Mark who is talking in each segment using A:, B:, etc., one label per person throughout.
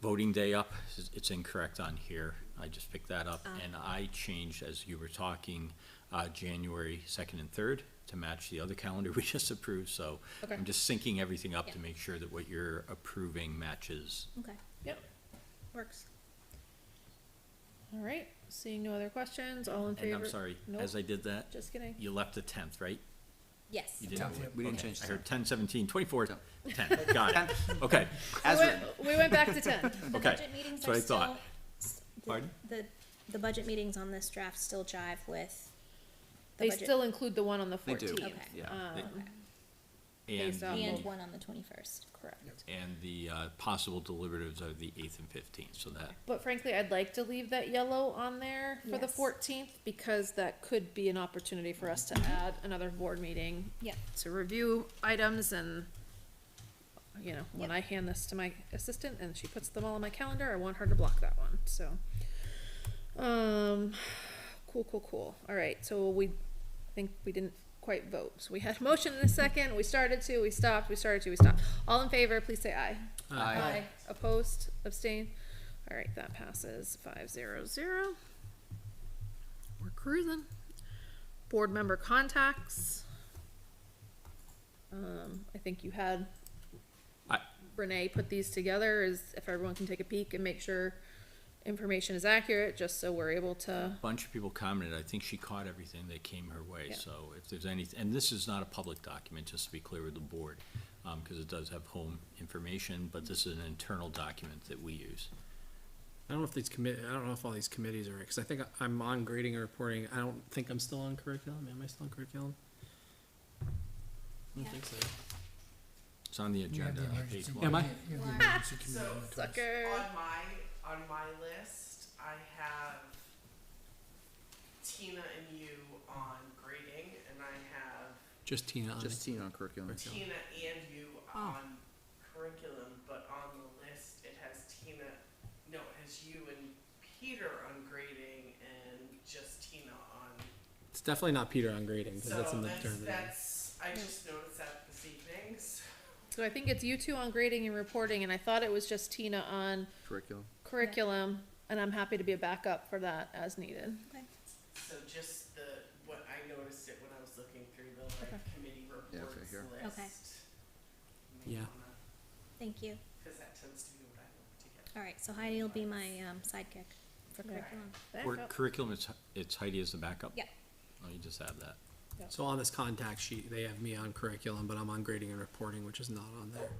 A: voting day up, it's- it's incorrect on here. I just picked that up,
B: Oh.
A: and I changed, as you were talking, uh, January second and third to match the other calendar we just approved, so
B: Okay.
A: I'm just syncing everything up to
B: Yeah.
A: make sure that what you're approving matches.
B: Okay,
C: Yep.
B: works. All right, seeing no other questions, all in favor?
A: And I'm sorry, as I
B: Nope,
A: did that,
B: just kidding.
A: you left the tenth, right?
B: Yes.
A: You didn't
D: Tenth,
A: move
D: yeah,
A: it.
D: we didn't
A: Okay.
D: change the
A: I heard ten, seventeen, twenty-four,
D: Tenth.
A: ten, got it. Okay,
B: We
D: As
B: went,
D: written.
B: we went back to ten.
E: The
A: Okay,
E: budget meetings
A: that's what
E: are
A: I
E: still.
A: thought.
E: s- the-
A: Pardon?
E: The, the budget meetings on this draft still jive with. the
B: They
E: budget-
B: still include the one on the
D: They do,
B: fourteenth.
E: Okay.
D: yeah.
B: Um,
E: Okay.
A: And,
B: Based on
A: the-
E: And one on the twenty-first.
B: correct.
A: and the uh, possible deliberatives are the eighth and fifteenth, so that
B: But frankly, I'd like to leave that yellow on there for the
E: Yes.
B: fourteenth, because that could be an opportunity for us
E: Mm-hmm.
B: to add another board meeting
E: Yep.
B: to review items and, you know, when
E: Yep.
B: I hand this to my assistant and she puts them all on my calendar, I want her to block that one, so. Um, cool, cool, cool. All right, so we, I think we didn't quite vote. So we had a motion in a second, we started to, we stopped, we started to, we stopped. All in favor, please say aye.
D: Aye.
B: Opposed, abstain. All right, that passes five zero zero. We're cruising. Board member contacts. Um, I think you had
A: I-
B: Renee put these together, is if everyone can take a peek and make sure information is accurate, just so we're able to,
A: bunch of people commented, I think she caught everything that came her way,
B: Yeah.
A: so if there's any, and this is not a public document, just to be clear with the board, um, cause it does have home information, but this is an internal document that we use.
F: I don't know if these commit. I don't know if all these committees are because I think I- I'm on grading and reporting. I don't think I'm still on curriculum. Am I still on curriculum? I don't think so.
A: It's on the agenda, on page one.
F: Am I?
D: Yeah,
E: Warrant.
B: sucker.
C: On my, on my list, I have Tina and you on grading, and I have
F: Just Tina. On
D: Just
F: it.
D: seeing on curriculum.
C: Tina and you on curriculum, but on the list, it has Tina, no, it has you and Peter on grading and just Tina on
F: It's definitely not Peter on grading because
C: So
F: that's in the
C: that's,
F: term.
C: that's, I just noticed that this evening, so
B: so I think it's you two on grading and reporting, and I thought it was just Tina on
D: Curriculum.
B: curriculum, and I'm happy to be a backup for that as needed.
E: Okay.
C: So just the, what I noticed it when I was looking through the like committee
D: Yeah,
C: reports
D: it's right
C: list.
D: here.
E: Okay.
C: May
F: Yeah.
C: wanna-
E: Thank you.
C: Cause that tends to be what I look to get.
E: All right, so Heidi will be my, um, sidekick for
B: Okay.
E: curriculum.
A: Or
B: Backup.
A: curriculum, it's, it's Heidi as the backup?
E: Yep.
A: Oh, you just have that.
F: So on this contact sheet, they have me on curriculum, but I'm on grading and reporting, which is not on there.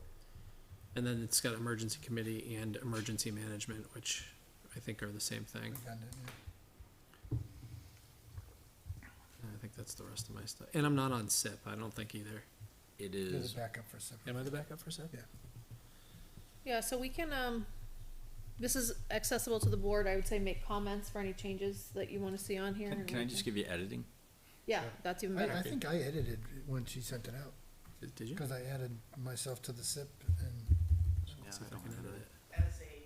F: And then it's got emergency committee and emergency management, which I think are the same thing. And I think that's the rest of my stuff. And I'm not on SIP. I don't think either.
A: It
G: You're the
A: is,
G: backup for seven.
F: Am I the backup for SIP?
G: Yeah.
B: Yeah, so we can, um, this is accessible to the board, I would say make comments for any changes that you wanna see on here.
A: can,
B: and
A: can I
B: we
A: just
B: can-
A: give you editing?
B: Yeah, that's even
G: I, I
B: better,
G: think I edited it when she sent it out,
F: Did- Did you?
G: because I added myself to the SIP and
F: Let's see if I can edit it.
C: As a,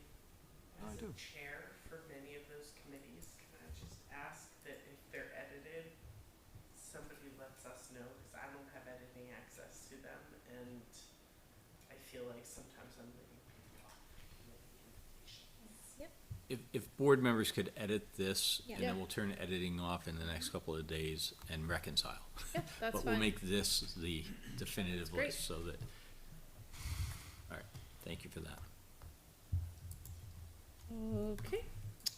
D: Oh, I
C: as a
D: do.
C: chair for many of those committees, can I just ask that if they're edited, somebody lets us know, cause I don't have editing access to them, and I feel like sometimes I'm leaving people off committee invitations.
A: If, if board members could edit this, and
B: Yeah.
A: then we'll turn editing off in the next couple of days and reconcile.
B: yeah, that's
A: But we'll
B: fine,
A: make this the definitive
B: great.
A: list so that, all right, thank you for that.
B: okay.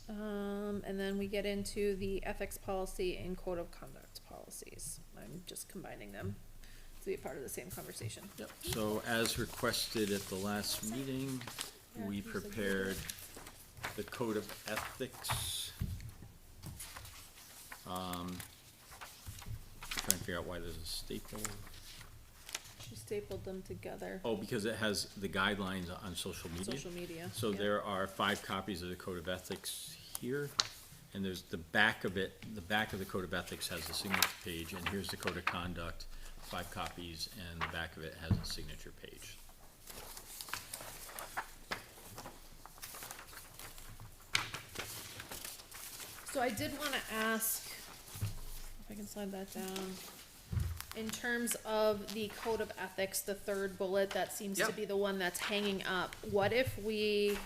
B: Um, and then we get into the ethics policy and code of conduct policies, I'm just combining them to be part of the same conversation.
A: Yep, so as requested at the last meeting, we
B: Yeah, who's the-
A: prepared the code of ethics. Um, Trying to figure out why there's a staple.
B: She stapled them together,
A: Oh, because it has the guidelines on social media.
B: social media.
A: So
B: yeah.
A: there are five copies of the Code of Ethics here, and there's the back of it, the back of the Code of Ethics has a signature page, and here's the Code of Conduct, five copies, and the back of it has a signature page.
B: So I did wanna ask, if I can slide that down, in terms of the code of ethics, the third bullet, that seems to
D: Yep.
B: be the one that's hanging up. What if we